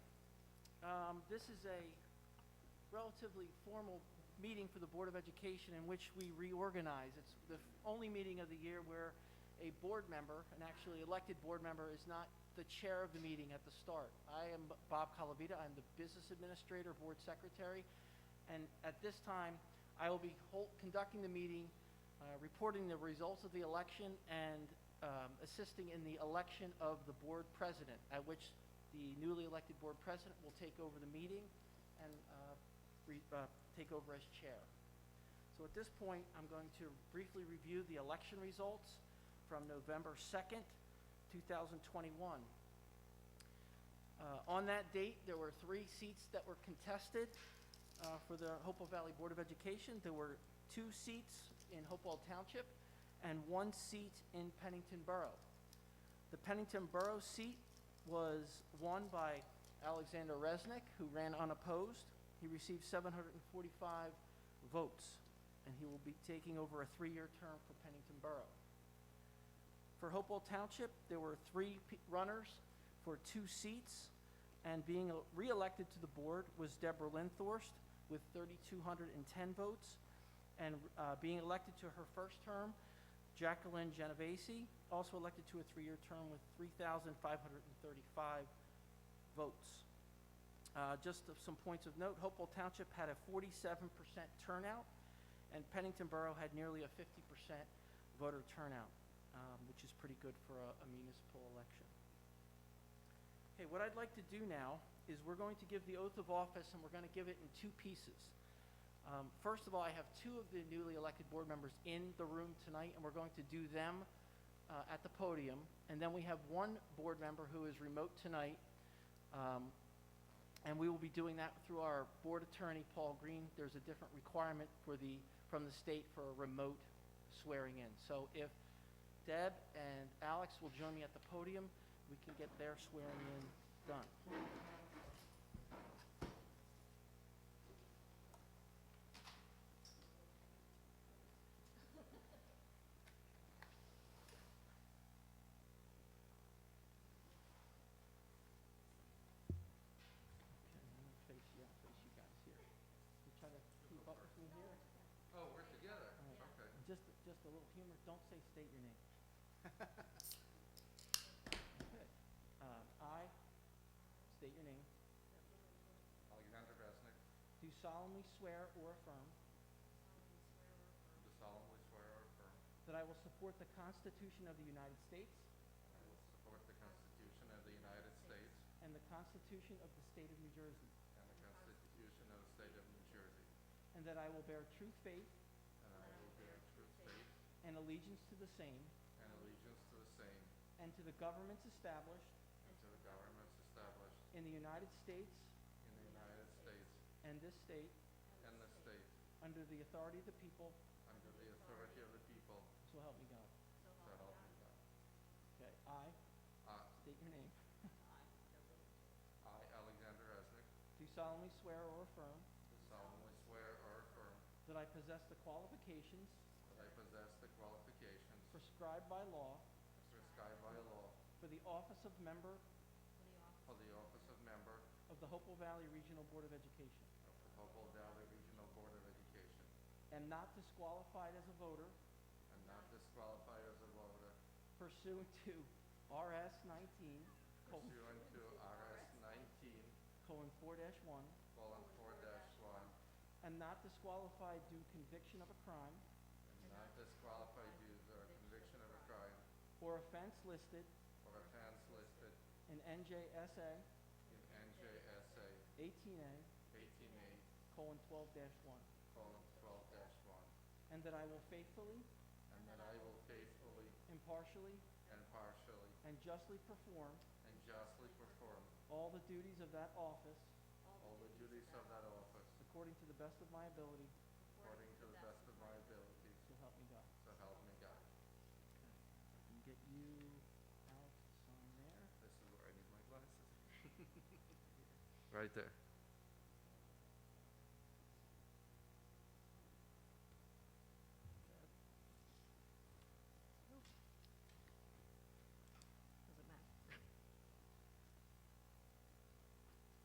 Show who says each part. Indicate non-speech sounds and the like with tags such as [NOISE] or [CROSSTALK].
Speaker 1: Um, This is a relatively formal meeting for the Board of Education in which we reorganize. It's the f- only meeting of the year where a board member, an actually elected board member, is not the chair of the meeting at the start. I am B- Bob Calavita, I'm the Business Administrator, Board Secretary, and at this time, I will be hol- conducting the meeting, uh, reporting the results of the election, and um, assisting in the election of the Board President, at which the newly elected Board President will take over the meeting and uh, re- uh, take over as chair. So at this point, I'm going to briefly review the election results from November 2nd, 2021. Uh, On that date, there were three seats that were contested uh, for the Hopewell Valley Board of Education. There were two seats in Hopewell Township and one seat in Pennington Borough. The Pennington Borough seat was won by Alexander Resnick, who ran unopposed. He received 745 votes, and he will be taking over a three-year term for Pennington Borough. For Hopewell Township, there were three p- runners for two seats, and being el- re-elected to the board was Deborah Linthorst with 3,210 votes, and uh, being elected to her first term, Jacqueline Genovese, also elected to a three-year term with 3,535 votes. Uh, Just of some points of note, Hopewell Township had a 47% turnout, and Pennington Borough had nearly a 50% voter turnout, um, which is pretty good for a a municipal election. Okay, what I'd like to do now is we're going to give the oath of office, and we're going to give it in two pieces. Um, First of all, I have two of the newly elected board members in the room tonight, and we're going to do them uh, at the podium. And then we have one board member who is remote tonight, um, and we will be doing that through our board attorney, Paul Green. There's a different requirement for the, from the state for a remote swearing in. So if Deb and Alex will join me at the podium, we can get their swearing in done. Okay, I'm gonna face you, I'll face you guys here. You try to keep up with me here.
Speaker 2: Oh, we're together,
Speaker 1: Yeah.
Speaker 2: okay.
Speaker 1: Just, just a little humor, don't say state your name. Okay. Um, I, state your name,
Speaker 2: Alexander Resnick,
Speaker 1: do solemnly swear or affirm
Speaker 2: do solemnly swear or affirm
Speaker 1: that I will support the Constitution of the United States
Speaker 2: I will support the Constitution of the United States
Speaker 1: and the Constitution of the State of New Jersey,
Speaker 2: and the Constitution of the State of New Jersey,
Speaker 1: and that I will bear true faith
Speaker 2: and I will bear true faith
Speaker 1: and allegiance to the same
Speaker 2: and allegiance to the same
Speaker 1: and to the governments established
Speaker 2: and to the governments established
Speaker 1: in the United States
Speaker 2: in the United States
Speaker 1: and this state
Speaker 2: and the state,
Speaker 1: under the authority of the people,
Speaker 2: under the authority of the people,
Speaker 1: so help me God.
Speaker 2: so help me God.
Speaker 1: Okay, I,
Speaker 2: I,
Speaker 1: state your name,
Speaker 2: I, Alexander Resnick,
Speaker 1: do solemnly swear or affirm
Speaker 2: do solemnly swear or affirm
Speaker 1: that I possess the qualifications
Speaker 2: that I possess the qualifications
Speaker 1: prescribed by law
Speaker 2: prescribed by law
Speaker 1: for the office of member
Speaker 2: for the office of member
Speaker 1: of the Hopewell Valley Regional Board of Education,
Speaker 2: of the Hopewell Valley Regional Board of Education.
Speaker 1: am not disqualified as a voter
Speaker 2: and not disqualified as a voter
Speaker 1: pursuant to RS nineteen, colon,
Speaker 2: pursuant to RS nineteen,
Speaker 1: colon, four dash one,
Speaker 2: colon, four dash one,
Speaker 1: am not disqualified due conviction of a crime
Speaker 2: and not disqualified due to a conviction of a crime
Speaker 1: or offense listed
Speaker 2: or offense listed
Speaker 1: in NJSA
Speaker 2: in NJSA
Speaker 1: eighteen A,
Speaker 2: eighteen A,
Speaker 1: colon, twelve dash one,
Speaker 2: colon, twelve dash one,
Speaker 1: and that I will faithfully,
Speaker 2: and that I will faithfully
Speaker 1: impartially,
Speaker 2: and partially
Speaker 1: and justly perform
Speaker 2: and justly perform
Speaker 1: all the duties of that office
Speaker 2: all the duties of that office
Speaker 1: according to the best of my ability,
Speaker 2: according to the best of my abilities,
Speaker 1: so help me God.
Speaker 2: so help me God.
Speaker 1: And get you out on there.
Speaker 2: [LAUGHS] This is where I need my glasses. Right there.